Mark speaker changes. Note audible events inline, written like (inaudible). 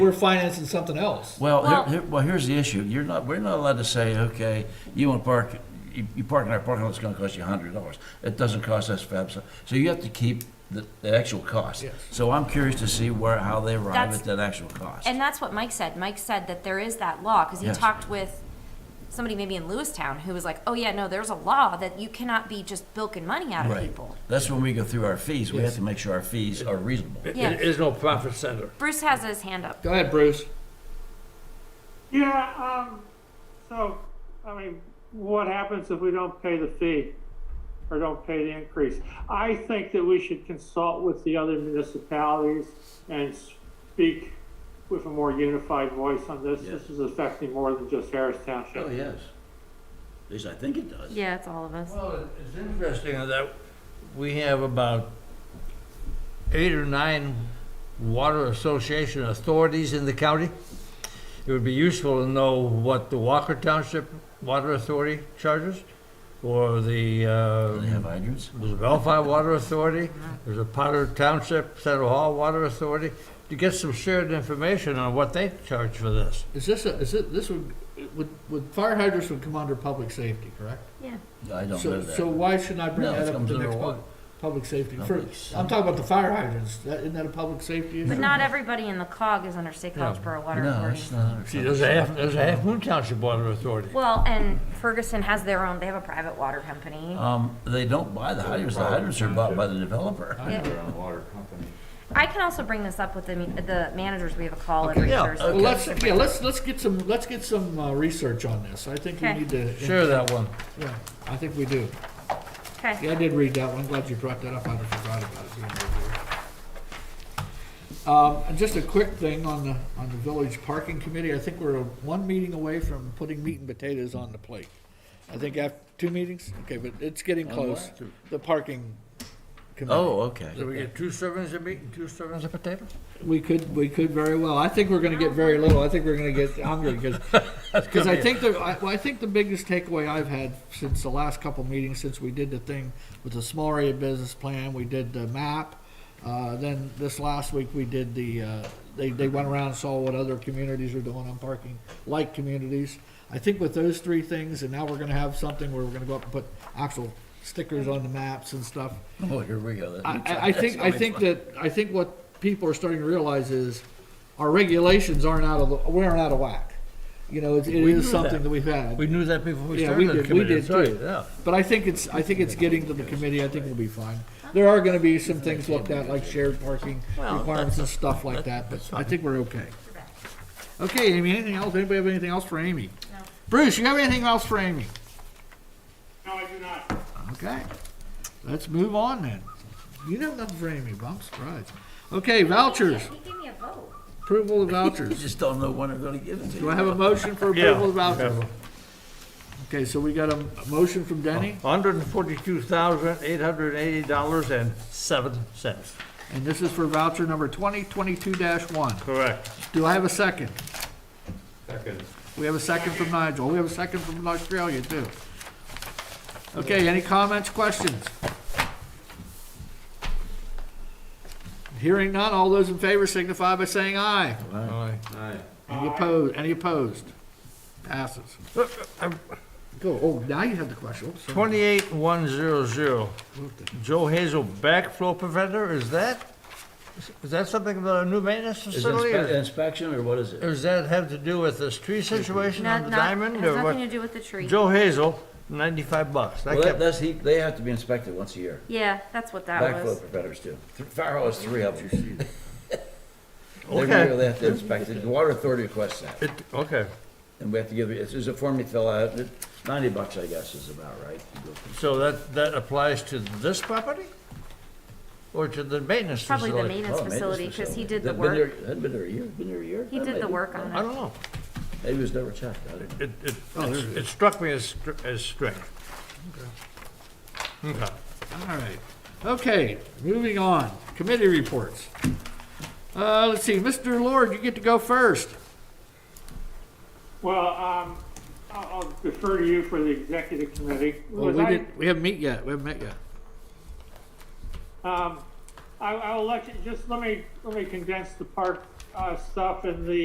Speaker 1: We're financing something else.
Speaker 2: Well,
Speaker 3: Well-
Speaker 2: here- here- well, here's the issue. You're not, we're not allowed to say, okay, you want to park, you you park in our parking lot, it's going to cost you hundred dollars. It doesn't cost us five cents. So you have to keep the, the actual cost.
Speaker 1: Yes.
Speaker 2: So I'm curious to see where, how they arrive
Speaker 3: That's-
Speaker 2: at that actual cost.
Speaker 3: And that's what Mike said. Mike said that there is that law, because he
Speaker 2: Yes.
Speaker 3: talked with somebody maybe in Lewistown who was like, oh yeah, no, there's a law that you cannot be just bilking money out of
Speaker 2: Right.
Speaker 3: people.
Speaker 2: That's when we go through our fees. We have to make sure our fees are reasonable.
Speaker 4: It-
Speaker 3: Yeah.
Speaker 4: It is no profit center.
Speaker 3: Bruce has his hand up.
Speaker 1: Go ahead, Bruce.
Speaker 5: Yeah, um, so, I mean, what happens if we don't pay the fee or don't pay the increase? I think that we should consult with the other municipalities and speak with a more unified voice on this. This is affecting more than just Harris Township.
Speaker 2: Oh, yes. At least I think it does.
Speaker 3: Yeah, it's all of us.
Speaker 4: Well, it's interesting that we have about eight or nine water association authorities in the county. It would be useful to know what the Walker Township Water Authority charges, or the,
Speaker 2: Do they have
Speaker 4: uh,
Speaker 2: hydrants?
Speaker 4: there's a Bellefield Water Authority, there's a Potter Township, Central Hall Water Authority, to get some shared information on what they charge for this.
Speaker 1: Is this, a- is it, this would, would, would fire hydrants would come under public safety, correct?
Speaker 2: I don't know
Speaker 1: So, so
Speaker 2: that.
Speaker 1: why shouldn't I bring
Speaker 2: No, it
Speaker 1: that up
Speaker 2: comes
Speaker 1: to the
Speaker 2: under
Speaker 1: next
Speaker 2: what?
Speaker 1: public, public safety? For-
Speaker 2: Public safety.
Speaker 1: I'm talking about the fire hydrants. That, isn't that a public safety issue?
Speaker 3: But not everybody in the cog is under State College
Speaker 4: No.
Speaker 3: Borough Water
Speaker 2: No,
Speaker 3: Authority.
Speaker 2: it's not.
Speaker 4: See, there's a half, there's a Half Moon Township Water Authority.
Speaker 3: Well, and Ferguson has their own, they have a private water company.
Speaker 2: Um, they don't buy the hydrants. The hydrants are bought by the developer.
Speaker 3: Yeah.
Speaker 6: Their own water company.
Speaker 3: I can also bring this up with the, the managers. We have a call every
Speaker 4: yeah,
Speaker 3: Thursday.
Speaker 1: Well, let's, yeah, let's, let's get some, let's get some, uh, research on this. I think we
Speaker 3: Okay.
Speaker 1: need to.
Speaker 4: Share that one.
Speaker 1: Yeah, I think we do.
Speaker 3: Okay.
Speaker 1: Yeah, I did read that one. I'm glad you brought that up. I forgot about it. being over there. Um, and just a quick thing on the, on the village parking committee. I think we're one meeting away from putting meat and potatoes on the plate. I think after, two meetings? Okay, but it's getting close. The parking committee.
Speaker 2: Oh, okay.
Speaker 4: So we get two servings of meat and two servings of potato?
Speaker 1: We could, we could very well. I think we're gonna get very little. I think we're gonna get hungry because, because I think the, I, well, I think the biggest takeaway I've had since the last couple meetings, since we did the thing with the small area business plan, we did the map. Uh, then this last week we did the, uh, they, they went around and saw what other communities are doing on parking, like communities. I think with those three things, and now we're gonna have something where we're gonna go up and put actual stickers on the maps and stuff.
Speaker 2: Oh, here we go. That's-
Speaker 1: I, I- I think, I think that, I think what people are starting to realize is our regulations aren't out of, the- we aren't out of whack. You know, it it
Speaker 4: We knew
Speaker 1: is
Speaker 4: that.
Speaker 1: something that we've had.
Speaker 4: We knew that before we
Speaker 1: Yeah, we
Speaker 4: started the
Speaker 1: did, we
Speaker 4: committee,
Speaker 1: did
Speaker 4: sorry,
Speaker 1: too.
Speaker 4: yeah.
Speaker 1: But I think it's, I think it's getting to the committee, I think we'll be fine. There are gonna be some things looked at, like shared parking requirements and stuff like that, but I think we're okay. Okay, Amy, anything else? Anybody have anything else for Amy? Bruce, you have anything else for Amy?
Speaker 5: No, I do not.
Speaker 1: Okay, let's move on then. You have nothing for Amy, but I'm surprised. Okay, vouchers.
Speaker 3: He gave me a vote.
Speaker 1: Approval of
Speaker 2: You
Speaker 1: vouchers.
Speaker 2: just don't know when they're gonna give it to you.
Speaker 1: Do I have a motion for approval of vouchers? Okay, so we got a a motion from Denny,
Speaker 4: Hundred and forty-two thousand, eight hundred and eighty dollars and seven cents.
Speaker 1: and this is for voucher number 2022-1.
Speaker 4: Correct.
Speaker 1: Do I have a second?
Speaker 6: Second.
Speaker 1: We have a second from Nigel. We have a second from Australia, too. Okay, any comments, questions? Hearing none, all those in favor signify by saying aye.
Speaker 4: Aye.
Speaker 6: Aye.
Speaker 1: Any opposed, any opposed? Passes. Go, oh, now you have the question. Oops, sorry.
Speaker 4: Twenty-eight, one, zero, zero. Joe Hazel backflow preventer, is that, is that something about a new maintenance
Speaker 2: Is it
Speaker 4: facility?
Speaker 2: inspe-
Speaker 4: Or
Speaker 2: inspection or what is
Speaker 4: or
Speaker 2: it?
Speaker 4: does that have to do with this tree situation on
Speaker 3: Not,
Speaker 4: the
Speaker 3: not,
Speaker 4: diamond
Speaker 3: has
Speaker 4: or
Speaker 3: nothing to
Speaker 4: what?
Speaker 3: do with the tree.
Speaker 4: Joe Hazel, ninety-five bucks. That
Speaker 2: Well, that,
Speaker 4: kept-
Speaker 2: that's, he, they have to be inspected once a year.
Speaker 3: Yeah, that's what that
Speaker 2: Backflow
Speaker 3: was.
Speaker 2: preventers do. Th- Fire hall has three of them. Every
Speaker 4: Okay.
Speaker 2: year (laughs) they have to inspect it. The water authority requests that.
Speaker 4: It, okay,
Speaker 2: And we have to give, it's, it's a form you fill out. It- Ninety bucks, I guess, is about right. You go through-
Speaker 4: so that, that applies to this property? Or to the maintenance
Speaker 3: Probably the
Speaker 4: facility?
Speaker 3: maintenance
Speaker 2: Oh, man, this
Speaker 3: facility, because he
Speaker 2: facility.
Speaker 3: did the
Speaker 2: They've been
Speaker 3: work.
Speaker 2: there- Hadn't been there a year, been there a year?
Speaker 3: He
Speaker 2: That
Speaker 3: did
Speaker 2: may
Speaker 3: the
Speaker 2: be.
Speaker 3: work on
Speaker 4: I
Speaker 3: it.
Speaker 4: don't know.
Speaker 2: Maybe it was never checked. I don't know.
Speaker 4: It, it,
Speaker 1: Oh, there
Speaker 4: it
Speaker 1: it
Speaker 4: it struck me as, str- as strange. Okay.
Speaker 1: All right. Okay, moving on. Committee reports. Uh, let's see, Mr. Lord, you get to go first.
Speaker 5: Well, um, I'll I'll defer to you for the executive committee.
Speaker 1: Well,
Speaker 5: Was
Speaker 1: we
Speaker 5: I-
Speaker 1: didn't, we haven't met yet. We haven't met yet.
Speaker 5: Um, I, I will let you, just let me, let me condense the park uh, stuff in the